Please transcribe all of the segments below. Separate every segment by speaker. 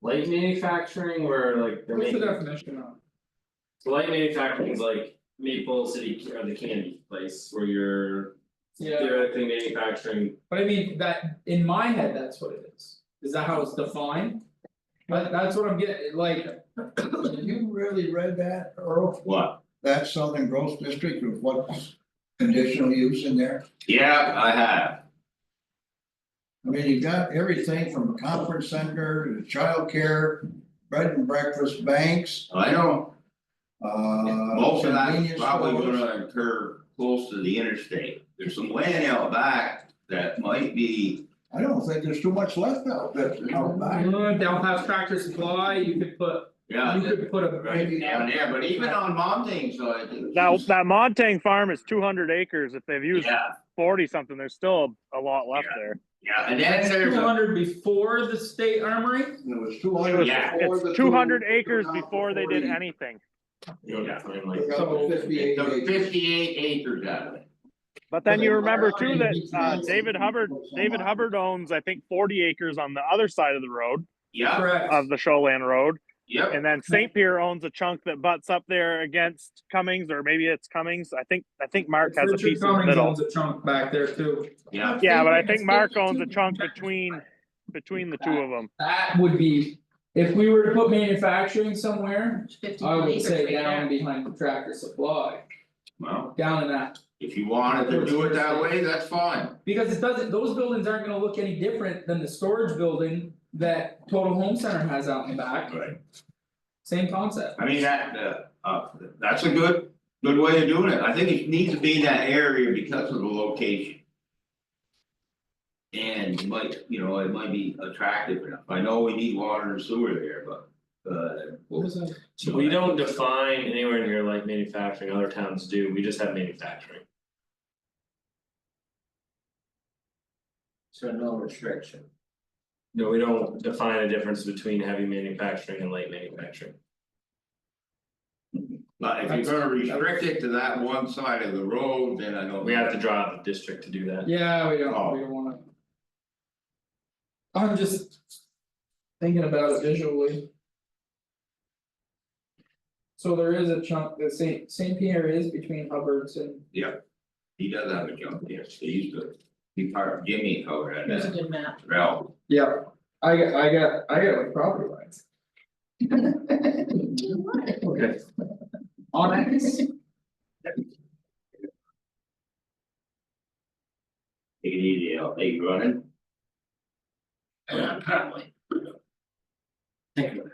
Speaker 1: Light manufacturing where like they're
Speaker 2: What's the
Speaker 1: making,
Speaker 2: definition of?
Speaker 1: so light manufacturing is like Maple City or the candy place where you're
Speaker 2: Yeah,
Speaker 1: theoretically manufacturing.
Speaker 2: but I mean, that, in my head, that's what it is, is that how it's defined? But that's what I'm getting, like,
Speaker 3: You really read that, Earl?
Speaker 4: What?
Speaker 3: That Southern Grove District with what's conditional use in there?
Speaker 4: Yeah, I have.
Speaker 3: I mean, you got everything from a conference center to childcare, bread and breakfast banks,
Speaker 4: I know,
Speaker 3: uh.
Speaker 4: most of that's
Speaker 3: convenience
Speaker 4: probably
Speaker 3: stores.
Speaker 4: gonna occur close to the interstate. There's some land out back that might be,
Speaker 3: I don't think there's too much left out there, you know, back.
Speaker 2: mm, they'll have tractor supply, you could put,
Speaker 4: yeah,
Speaker 2: you could put a,
Speaker 4: right down there, but even on Montane side. it's
Speaker 5: That
Speaker 4: just-
Speaker 5: that Montang farm is two hundred acres. If they've used
Speaker 4: Yeah,
Speaker 5: forty something, there's still a lot left there.
Speaker 4: yeah, and then
Speaker 2: two
Speaker 4: there's a,
Speaker 2: hundred before the state armory?
Speaker 3: It was two hundred
Speaker 4: Yeah.
Speaker 3: before the
Speaker 5: It's
Speaker 3: two.
Speaker 5: two hundred acres
Speaker 3: two-
Speaker 5: before they did anything,
Speaker 1: You know, that's kind of like.
Speaker 3: They got
Speaker 2: So-
Speaker 3: the fifty-eight
Speaker 4: the
Speaker 3: acres.
Speaker 4: fifty-eight acres out of it.
Speaker 5: but then
Speaker 3: Well,
Speaker 5: you
Speaker 3: they-
Speaker 5: remember too that uh
Speaker 3: Yeah.
Speaker 5: David Hubbard, David Hubbard owns, I think, forty acres on the other side of the road.
Speaker 4: Yeah,
Speaker 2: Correct.
Speaker 5: Of the Shoreland Road,
Speaker 4: yep,
Speaker 5: and then St. Pierre owns a chunk that butts up there against Cummings, or maybe it's Cummings, I think, I think Mark has a piece in the
Speaker 2: Richard Cummings
Speaker 5: middle.
Speaker 2: owns a chunk back there too.
Speaker 4: yeah,
Speaker 5: Yeah, but I
Speaker 2: It's
Speaker 5: think Mark
Speaker 2: still
Speaker 5: owns a
Speaker 2: two
Speaker 5: chunk
Speaker 2: tractor
Speaker 5: between,
Speaker 2: supply.
Speaker 5: between the two of them.
Speaker 2: That would be, if we were to put manufacturing somewhere,
Speaker 6: fifty
Speaker 2: I would
Speaker 6: acres
Speaker 2: say
Speaker 6: right
Speaker 2: down
Speaker 6: there.
Speaker 2: behind Tractor Supply,
Speaker 4: well,
Speaker 2: down in that.
Speaker 4: if you wanted to do it that way, that's fine.
Speaker 2: Because it doesn't, those buildings aren't gonna look any different than the storage building that Total Home Center has out in the back,
Speaker 4: Right.
Speaker 2: same concept.
Speaker 4: I mean, that, uh, uh, that's a good, good way of doing it, I think it needs to be in that area because of the location. And might, you know, it might be attractive enough, I know we need water and sewer there, but, uh.
Speaker 2: What was that?
Speaker 1: So we don't define anywhere near like manufacturing, other towns do, we just have manufacturing.
Speaker 4: So no restriction.
Speaker 1: No, we don't define a difference between heavy manufacturing and light manufacturing.
Speaker 4: But if you're gonna restrict it to that one side of the road, then I know.
Speaker 1: We have to draw out the district to do that.
Speaker 2: Yeah, we
Speaker 4: Oh.
Speaker 2: don't, we don't wanna. I'm just. Thinking about it visually. So there is a chunk, the Saint Saint Pierre is between Hubbard's and.
Speaker 4: He does have a jump there, so he's the, he part of Jimmy over at
Speaker 6: There's a
Speaker 4: that
Speaker 6: good map.
Speaker 4: route.
Speaker 2: Yeah, I got, I got, I got like property lines.
Speaker 1: Okay.
Speaker 2: On X.
Speaker 4: Take it easy, I'll take running. Uh, Apparently. Thank you.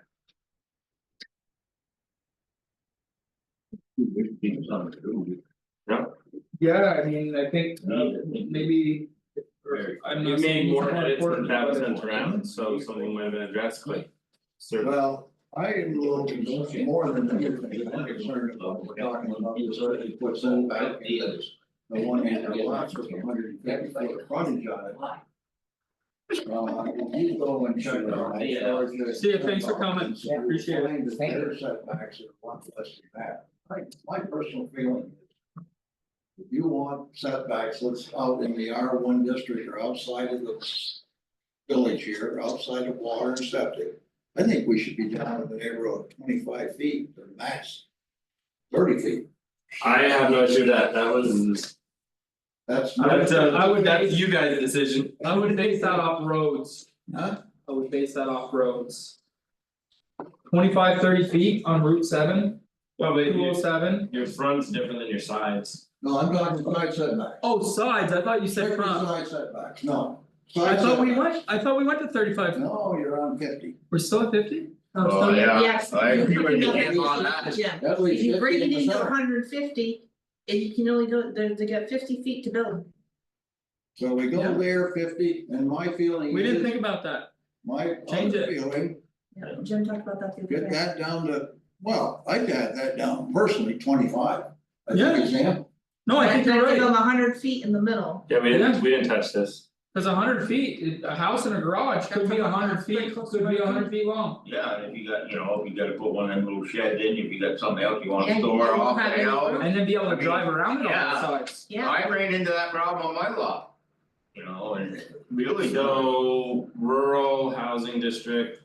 Speaker 2: Yeah, I mean, I think uh, maybe. I'm
Speaker 1: You
Speaker 2: not saying
Speaker 1: made
Speaker 2: it's
Speaker 1: more
Speaker 2: not
Speaker 1: edits than
Speaker 2: important,
Speaker 1: that was
Speaker 2: but-
Speaker 1: sent around, so something might have been addressed, like. Certainly,
Speaker 3: Well, I am a little concerned more than anything, I'm concerned about what we're talking about, is already puts in back the others. The one hand, the lots with a hundred and fifty foot frontage on it. Uh, Well, you go and check it out.
Speaker 2: See you, thanks for coming. Appreciate it.
Speaker 3: Claim that Their setbacks are a lot less than that, my, my personal feeling is. If you want setbacks, let's out in the R one district or outside of the village here, outside of water and septic. I think we should be down in the neighborhood of twenty-five feet or max thirty feet,
Speaker 1: I have no issue with that, that was.
Speaker 3: that's.
Speaker 2: I would-
Speaker 1: That's uh,
Speaker 2: I would-
Speaker 1: that's you guys' decision.
Speaker 2: I would base that off roads,
Speaker 3: Huh?
Speaker 2: I would base that off roads. Twenty-five, thirty feet on Route seven,
Speaker 1: Well, but
Speaker 2: two oh
Speaker 1: your
Speaker 2: seven.
Speaker 1: your front's different than your sides.
Speaker 3: No, I'm talking side setback.
Speaker 2: Oh, sides, I thought you said
Speaker 3: Strictly
Speaker 2: front,
Speaker 3: Side setbacks, no.
Speaker 2: I
Speaker 3: Side
Speaker 2: thought we
Speaker 3: setbacks.
Speaker 2: went, I thought we went to thirty-five,
Speaker 3: No, you're on fifty,
Speaker 2: we're still at fifty?
Speaker 4: Oh, yeah.
Speaker 6: Yes.
Speaker 4: I agree with you
Speaker 6: Yeah.
Speaker 4: on that.
Speaker 6: Yeah,
Speaker 3: at
Speaker 6: if
Speaker 3: least
Speaker 6: you
Speaker 3: fifty
Speaker 6: bring
Speaker 3: in
Speaker 6: it
Speaker 3: the
Speaker 6: into
Speaker 3: center,
Speaker 6: hundred and fifty, and you can only go, they they got fifty feet to build.
Speaker 3: so we
Speaker 2: Yeah.
Speaker 3: go there fifty, and my feeling is.
Speaker 2: We didn't think about that,
Speaker 3: My
Speaker 2: Change
Speaker 3: other
Speaker 2: it.
Speaker 3: feeling,
Speaker 6: Yeah, Jim talked about that the other
Speaker 3: get
Speaker 6: day.
Speaker 3: that down to, well, I'd add that down personally, twenty-five. As
Speaker 2: Yeah.
Speaker 3: an example,
Speaker 2: no, I think you're
Speaker 6: I
Speaker 2: right,
Speaker 6: hundred feet in the middle.
Speaker 1: Yeah, we didn't, we didn't touch this.
Speaker 2: cause a hundred feet, a house and a garage could be a hundred feet, could be a hundred feet long.
Speaker 4: Yeah, and if you got, you know, if you gotta put one of them little sheds in, if you got something else you
Speaker 6: Yeah,
Speaker 4: wanna
Speaker 6: you
Speaker 4: store
Speaker 6: don't
Speaker 4: off
Speaker 6: have
Speaker 4: the
Speaker 6: any
Speaker 4: hill.
Speaker 6: room.
Speaker 2: And then be able
Speaker 4: I
Speaker 2: to
Speaker 4: mean,
Speaker 2: drive around it on
Speaker 4: yeah.
Speaker 2: all sides.
Speaker 6: Yeah,
Speaker 4: I ran into that problem on my lot. You know, and it really don't.
Speaker 1: So rural housing district